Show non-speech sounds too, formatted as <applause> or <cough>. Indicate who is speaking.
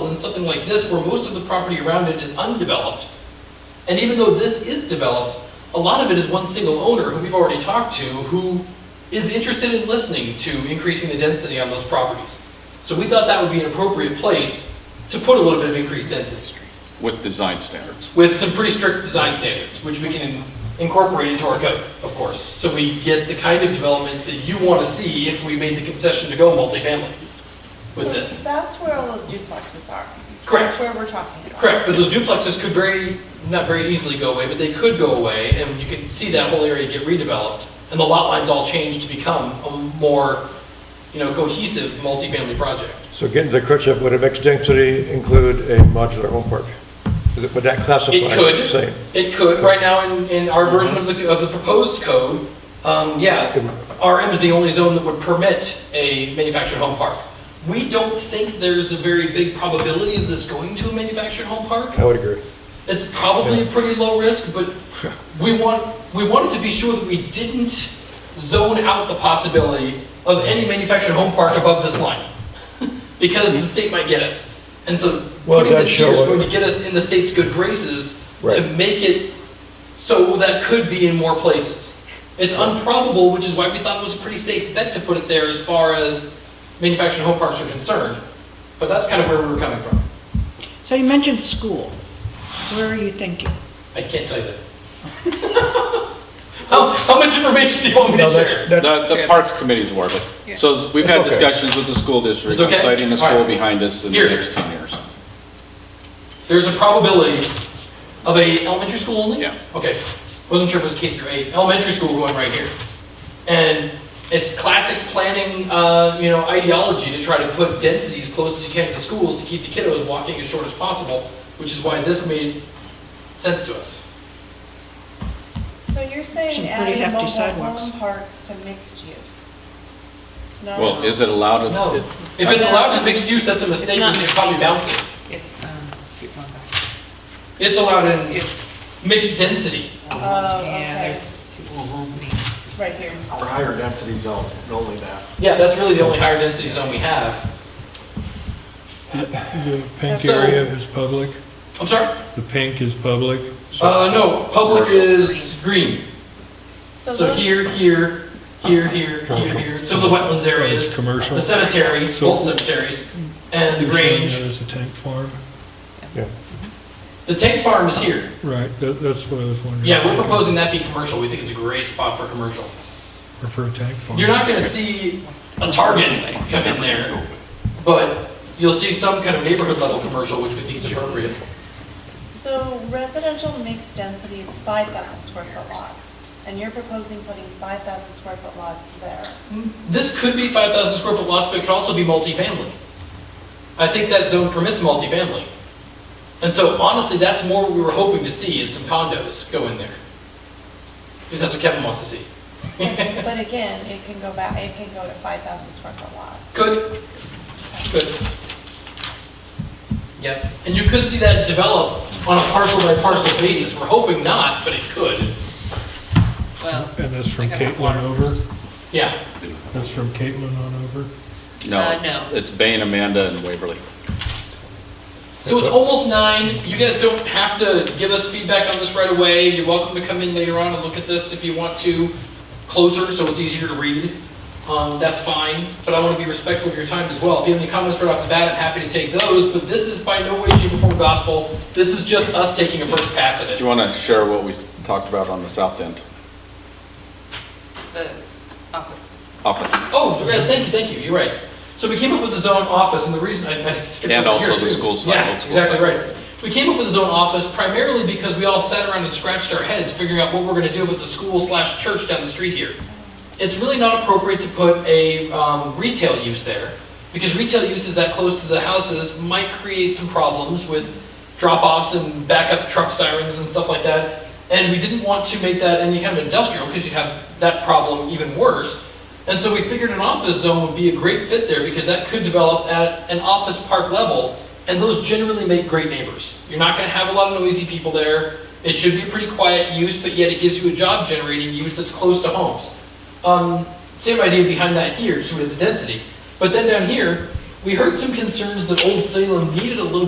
Speaker 1: than something like this, where most of the property around it is undeveloped. And even though this is developed, a lot of it is one single owner who we've already talked to, who is interested in listening to increasing the density on those properties. So we thought that would be an appropriate place to put a little bit of increased density
Speaker 2: with design standards.
Speaker 1: with some pretty strict design standards, which we can incorporate into our code, of course. So we get the kind of development that you want to see if we made the concession to go multifamily with
Speaker 3: So
Speaker 1: this.
Speaker 3: That's where all those duplexes are.
Speaker 1: Correct,
Speaker 3: That's where we're talking about.
Speaker 1: correct, but those duplexes could very, not very easily go away, but they could go away, and you can see that whole area get redeveloped, and the lot lines all change to become a more, you know, cohesive multifamily project.
Speaker 4: So getting to Kritchup, would a mixed density include a modular home park? Would would that classify?
Speaker 1: It
Speaker 4: the
Speaker 1: could,
Speaker 4: Same.
Speaker 1: it could, right now in, in our version of the, of the proposed code, um, yeah, RM is the only zone that would permit a manufactured home park. We don't think there's a very big probability of this going to a manufactured home park.
Speaker 4: I would agree.
Speaker 1: It's probably a pretty low risk,
Speaker 4: <laughs>
Speaker 1: but we want, we wanted to be sure that we didn't zone out the possibility of any manufactured home park above this line, <laughs> because the state might get us. And so
Speaker 4: Well, it
Speaker 1: putting
Speaker 4: does
Speaker 1: this here
Speaker 4: show
Speaker 1: is
Speaker 4: what-
Speaker 1: going to get us in the state's good graces to
Speaker 4: Right.
Speaker 1: make it so that could be in more places. It's improbable, which is why we thought it was a pretty safe bet to put it there as far as manufactured home parks are concerned. But that's kind of where we were coming from.
Speaker 5: So you mentioned school. Where are you thinking?
Speaker 1: I can't tell you that. How, how much information do you want me to
Speaker 4: No,
Speaker 1: share?
Speaker 4: that's,
Speaker 2: The,
Speaker 4: that's,
Speaker 2: the Parks Committee's aware of it. So we've had
Speaker 4: It's okay.
Speaker 2: discussions with the school district,
Speaker 1: It's okay?
Speaker 2: citing the
Speaker 1: All
Speaker 2: school
Speaker 1: right.
Speaker 2: behind us in the
Speaker 1: Here.
Speaker 2: next 10 years.
Speaker 1: There's a probability of a elementary school only?
Speaker 2: Yeah.
Speaker 1: Okay, wasn't sure if it was K through eight, elementary school going right here. And it's classic planning, uh, you know, ideology to try to put density as close as you can to the schools to keep the kiddos walking as short as possible, which is why this made sense to us.
Speaker 3: So you're
Speaker 5: Some
Speaker 3: saying
Speaker 5: pretty
Speaker 3: adding
Speaker 5: hefty
Speaker 3: mobile
Speaker 5: sidewalks.
Speaker 3: home parks to mixed use? No.
Speaker 2: Well, is it allowed?
Speaker 1: No,
Speaker 2: to-
Speaker 1: if it's allowed in mixed use, that's a mistake, we
Speaker 6: not
Speaker 1: should probably
Speaker 6: mixed
Speaker 1: bounce it.
Speaker 6: It's, um, keep going back.
Speaker 1: It's allowed in
Speaker 6: It's,
Speaker 1: mixed density.
Speaker 3: Oh,
Speaker 6: yeah,
Speaker 3: okay.
Speaker 6: there's two old
Speaker 3: Right here.
Speaker 7: Or higher density zone, only that.
Speaker 1: Yeah, that's really the only higher density zone we have.
Speaker 8: The pink
Speaker 1: So-
Speaker 8: area is public,
Speaker 1: I'm sorry?
Speaker 8: the pink is public. so-
Speaker 1: Uh, no, public
Speaker 2: Commercial.
Speaker 1: is green. So
Speaker 3: those-
Speaker 1: here, here, here, here, here, here, so the wetlands areas,
Speaker 8: It's commercial.
Speaker 1: the cemetery,
Speaker 8: So-
Speaker 1: both cemeteries, and the
Speaker 8: You're saying
Speaker 1: range.
Speaker 8: There's a tank farm,
Speaker 4: yeah.
Speaker 1: The tank farm is here.
Speaker 8: right, that, that's what I was wondering.
Speaker 1: Yeah, we're proposing that be commercial, we think it's a great spot for commercial.
Speaker 8: Or for a tank farm.
Speaker 1: You're not gonna see a Target come in there, but you'll see some kind of neighborhood level commercial, which we think is appropriate.
Speaker 3: So residential mixed density is 5,000 square foot lots, and you're proposing putting 5,000 square foot lots there.
Speaker 1: This could be 5,000 square foot lots, but it could also be multifamily. I think that zone permits multifamily. And so honestly, that's more what we were hoping to see, is some condos go in there. Because that's what Kevin wants to see.
Speaker 3: But again, it can go back, it can go to 5,000 square foot lots.
Speaker 1: Good, good. Yep, and you could see that develop on a parcel by parcel basis. We're hoping not, but it could.
Speaker 6: Well,
Speaker 8: And that's from
Speaker 6: I got my
Speaker 8: Caitlin
Speaker 6: water.
Speaker 8: over,
Speaker 1: Yeah,
Speaker 8: that's from Caitlin on over.
Speaker 2: No,
Speaker 6: Uh,
Speaker 2: it's-
Speaker 6: no.
Speaker 2: it's Bain, Amanda, and Waverly.
Speaker 1: So it's almost nine, you guys don't have to give us feedback on this right away, you're welcome to come in later on and look at this if you want to, closer, so it's easier to read, um, that's fine, but I wanna be respectful of your time as well, if you have any comments right off the bat, I'm happy to take those, but this is by no way, shape, or form gospel, this is just us taking a first pass at
Speaker 2: Do
Speaker 1: it.
Speaker 2: you want to share what we talked about on the south end
Speaker 6: the office.
Speaker 2: office?
Speaker 1: Oh, yeah, thank you, thank you, you're right. So we came up with the zone office, and the reason, I I skipped
Speaker 2: And
Speaker 1: over
Speaker 2: also
Speaker 1: here,
Speaker 2: the
Speaker 1: too.
Speaker 2: school side,
Speaker 1: Yeah,
Speaker 2: old school
Speaker 1: exactly
Speaker 2: side.
Speaker 1: right. We came up with the zone office primarily because we all sat around and scratched our heads figuring out what we're gonna do with the school slash church down the street here. It's really not appropriate to put a um, retail use there, because retail uses that close to the houses might create some problems with drop-offs and backup truck sirens and stuff like that. And we didn't want to make that any kind of industrial, because you'd have that problem even worse. And so we figured an office zone would be a great fit there, because that could develop at an office park level, and those generally make great neighbors. You're not gonna have a lot of noisy people there, it should be a pretty quiet use, but yet it gives you a job-generating use that's close to homes. Um, same idea behind that here, sort of the density. But then down here, we heard some concerns that Old Salem needed a little